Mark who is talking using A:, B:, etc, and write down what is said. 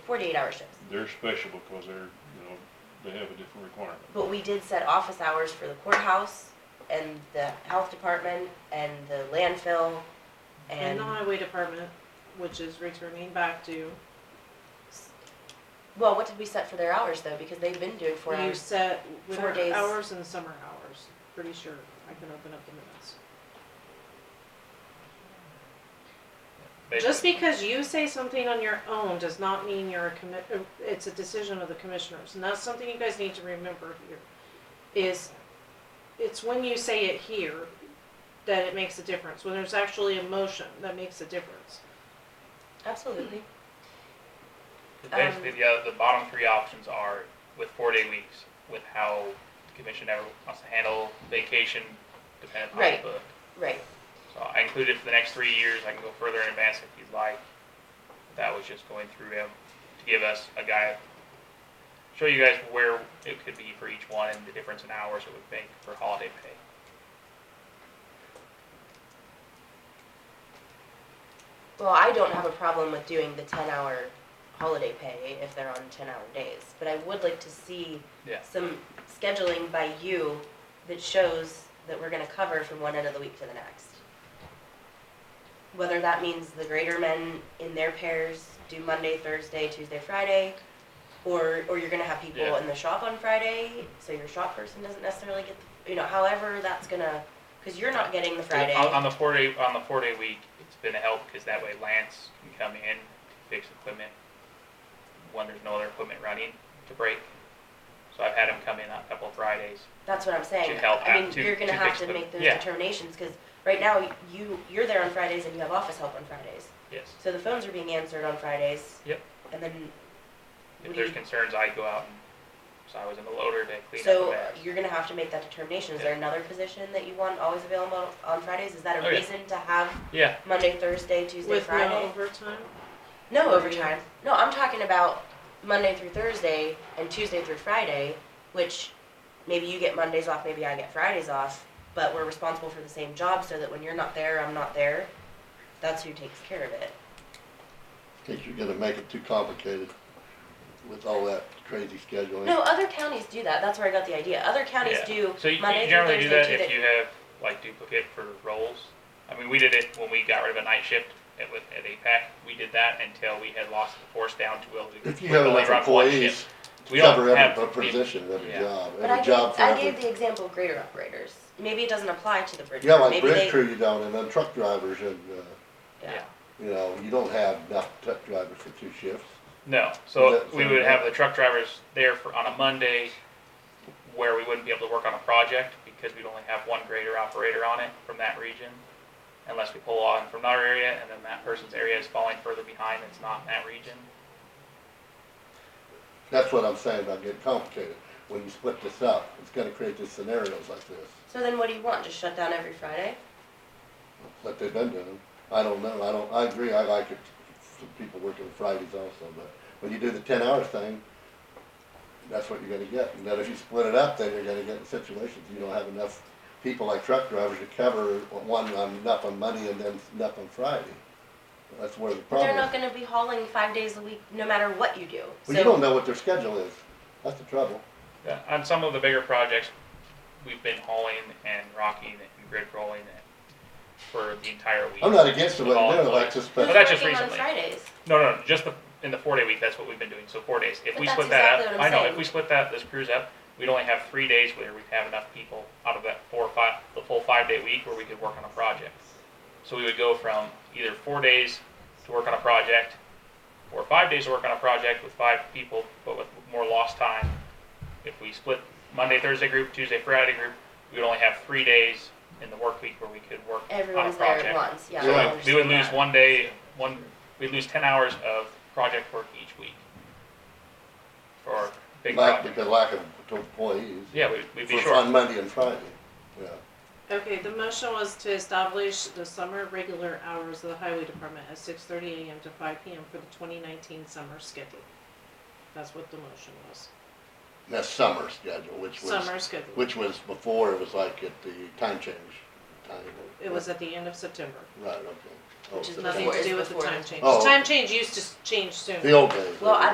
A: forty-eight hour shifts.
B: They're special because they're, you know, they have a different requirement.
A: But we did set office hours for the courthouse and the health department and the landfill
C: And
A: and,
C: the highway department, which is returning back to,
A: well, what did we set for their hours though? Because they've been doing four
C: you
A: hours.
C: set
A: Four days.
C: winter hours and summer hours, pretty sure, I can open up the minutes. Just because you say something on your own does not mean you're a commit, uh, it's a decision of the commissioners, and that's something you guys need to remember here, is it's when you say it here that it makes a difference, when there's actually a motion that makes a difference.
A: Absolutely.
D: Basically, the, other- the bottom three options are with four day weeks, with how the commission ever wants to handle vacation dependent on
A: Right.
D: the book.
A: Right.
D: So I included for the next three years, I can go further in advance if you'd like. That was just going through him to give us a guide, show you guys where it could be for each one and the difference in hours it would make for holiday pay.
A: Well, I don't have a problem with doing the ten hour holiday pay if they're on ten hour days, but I would like to see
D: Yeah.
A: some scheduling by you that shows that we're gonna cover from one end of the week to the next. Whether that means the greater men in their pairs do Monday, Thursday, Tuesday, Friday, or, or you're gonna have people
D: Yeah.
A: in the shop on Friday, so your shop person doesn't necessarily get, the you know, however that's gonna, cause you're not getting the Friday.
D: On, on the four day on the four day week, it's been a help because that way Lance can come in, fix equipment when there's no other equipment running to break. So I've had him come in on a couple of Fridays.
A: That's what I'm saying.
D: To help
A: I
D: out,
A: mean,
D: to-
A: you're gonna
D: to
A: have
D: fix
A: to
D: them.
A: make those
D: Yeah.
A: determinations, cause right now, you, you're there on Fridays and you have office help on Fridays.
D: Yes.
A: So the phones are being answered on Fridays.
D: Yep.
A: And then,
D: If there's concerns, I go out and so I was in the loader to clean up the
A: so
D: bags.
A: you're gonna have to make that determination. Is there another position that you want always available on Fridays? Is that a
D: Oh, yeah.
A: reason to have
D: Yeah.
A: Monday, Thursday, Tuesday,
C: With no
A: Friday?
C: overtime,
A: No overtime. No, I'm talking about Monday through Thursday and Tuesday through Friday, which maybe you get Mondays off, maybe I get Fridays off, but we're responsible for the same job so that when you're not there, I'm not there. That's who takes care of it.
E: In case you're gonna make it too complicated with all that crazy scheduling.
A: No, other counties do that. That's where I got the idea. Other counties
D: Yeah.
A: do
D: So you, you
A: Monday through
D: generally do
A: Thursday,
D: that
A: Tuesday.
D: if you have like duplicate for roles. I mean, we did it when we got rid of a night shift at, with, at APAC. We did that until we had lost the force down to will do.
E: If you have enough employees,
D: we
E: cover
D: don't have
E: every
D: the-
E: position, every
D: yeah.
E: job,
A: But I
E: every
A: gave,
E: job for
A: I gave
E: every.
A: the example of grader operators. Maybe it doesn't apply to the bridge.
E: Yeah,
A: crew.
E: like
A: Maybe they-
E: bridge crew you don't, and then truck drivers and, uh,
A: Yeah.
D: Yeah.
E: you know, you don't have enough truck drivers for two shifts.
D: No, so
E: That-
D: we would have the truck drivers there for, on a Monday where we wouldn't be able to work on a project because we'd only have one grader operator on it from that region. Unless we pull on from our area and then that person's area is falling further behind that's not in that region.
E: That's what I'm saying, about getting complicated. When you split this up, it's gonna create these scenarios like this,
A: So then what do you want? Just shut down every Friday?
E: like they've been doing. I don't know, I don't, I agree, I like it, some people working Fridays also, but when you do the ten hour thing, that's what you're gonna get. And then if you split it up, then you're gonna get in situations, you don't have enough people like truck drivers to cover one, on enough on Monday and then enough on Friday. That's where the
A: But they're
E: problem
A: not
E: is.
A: gonna be hauling five days a week, no matter what you do.
E: Well, you don't
A: So,
E: know what their schedule is, that's the trouble.
D: Yeah, On some of the bigger projects, we've been hauling and rocking and grid rolling it for the entire week.
E: I'm not against the way
D: With all
E: they're doing it like
D: employees.
E: this,
A: who's
D: Well,
E: but
D: that's just
A: working on
D: recently.
A: Fridays?
D: No, no, just the, in the four day week, that's what we've been doing, so four days. If
A: But
D: we
A: that's
D: split that
A: exactly
D: up,
A: what
D: I
A: I'm
D: know,
A: saying.
D: if we split that, this cruise up, we'd only have three days where we'd have enough people out of that four or five, the full five day week where we could work on a project. So we would go from either four days to work on a project, or five days to work on a project with five people, but with more lost time. If we split Monday, Thursday group, Tuesday, Friday group, we would only have three days in the work week where we could work on a
A: Everyone's there
D: project.
A: at once, yeah. I
E: Yeah.
D: So we would
A: understand
D: lose
A: that.
D: one day, one, we'd lose ten hours of project work each week. For big
E: lack,
D: projects.
E: because lack of employees.
D: Yeah, we'd, we'd be
E: For-
D: short.
E: On Monday and Friday, yeah.
C: okay, the motion was to establish the summer regular hours of the highway department at six thirty AM to five PM for the twenty nineteen summer schedule. That's what the motion was,
E: That's summer schedule, which was,
C: summer schedule,
E: which was before, it was like at the time change. time.
C: it was at the end of September.
E: Right, okay. Oh,
A: Which is
E: September.
C: Nothing to
A: Before-
C: do with the
A: before
C: time
A: the-
C: change.
E: Oh,
C: Time
E: okay.
C: change used to s- change soon.
E: The old days.
A: Well, I